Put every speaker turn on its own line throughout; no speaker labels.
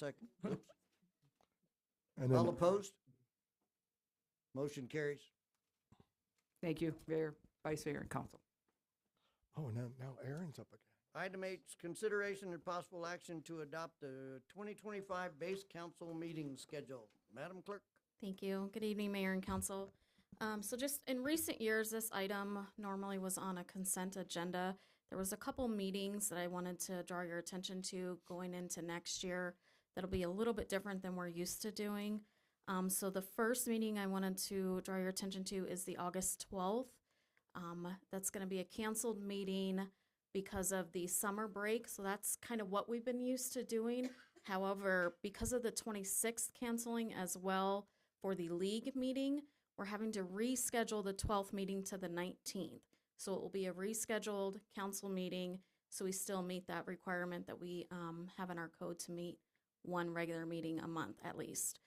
Second. Oops.
And
All
then,
opposed? Motion carries.
Thank you, Mayor, Vice Mayor, and Council.
oh, now, now Aaron's up again.
Item H, consideration and possible action to adopt the 2025 base council meeting schedule. Madam Clerk?
Thank you. Good evening, Mayor and Council. Um, so just in recent years, this item normally was on a consent agenda. There was a couple meetings that I wanted to draw your attention to going into next year. That'll be a little bit different than we're used to doing. Um, so the first meeting I wanted to draw your attention to is the August twelfth. Um, that's gonna be a canceled meeting because of the summer break, so that's kind of what we've been used to doing. However, because of the twenty-sixth canceling as well, for the league meeting, we're having to reschedule the 12th meeting to the 19th. So it will be a rescheduled council meeting. So we still meet that requirement that we um, have in our code to meet one regular meeting a month at least.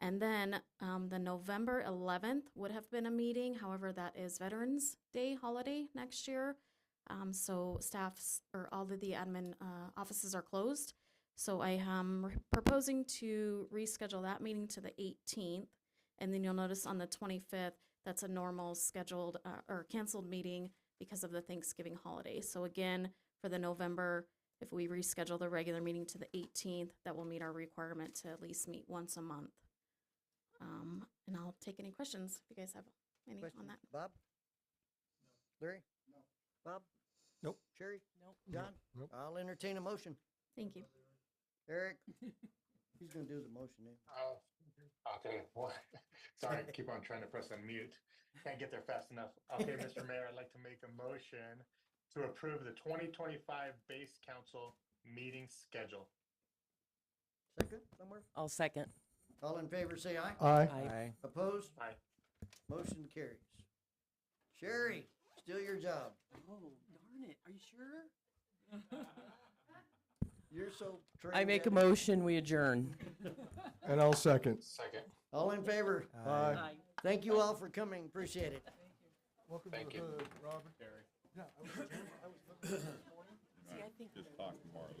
And then um, the November 11th would have been a meeting. However, that is Veterans Day holiday next year. Um, so staffs or all of the admin uh, offices are closed. So I am re- proposing to reschedule that meeting to the 18th. And then you'll notice on the 25th, that's a normal scheduled uh, or canceled meeting because of the Thanksgiving holiday. So again, for the November, if we reschedule the regular meeting to the 18th, that will meet our requirement to at least meet once a month. Um, and I'll take any questions if you guys have any on
questions?
that.
Bob? Larry? No. Bob?
Nope.
Sherry?
Nope.
John?
Nope.
I'll entertain a motion.
Thank you.
Eric? He's gonna do the motion then.
Oh, okay. Well, sorry, I keep on trying to press unmute. Can't get there fast enough. Okay, Mr. Mayor, I'd like to make a motion to approve the twenty twenty-five base council meeting schedule.
Second somewhere?
I'll second.
All in favor, say aye.
Aye.
Aye.
Opposed?
Aye.
Motion carries. Sherry, still your job.
Oh, darn it. Are you sure?
You're so trained.
I make a
at it.
motion, we adjourn.
And I'll second.
Second.
All in favor?
Aye.
Thank you all for coming. Appreciate it.
Welcome
Thank you.
hood, Robert.
See, I think
Just talk tomorrow.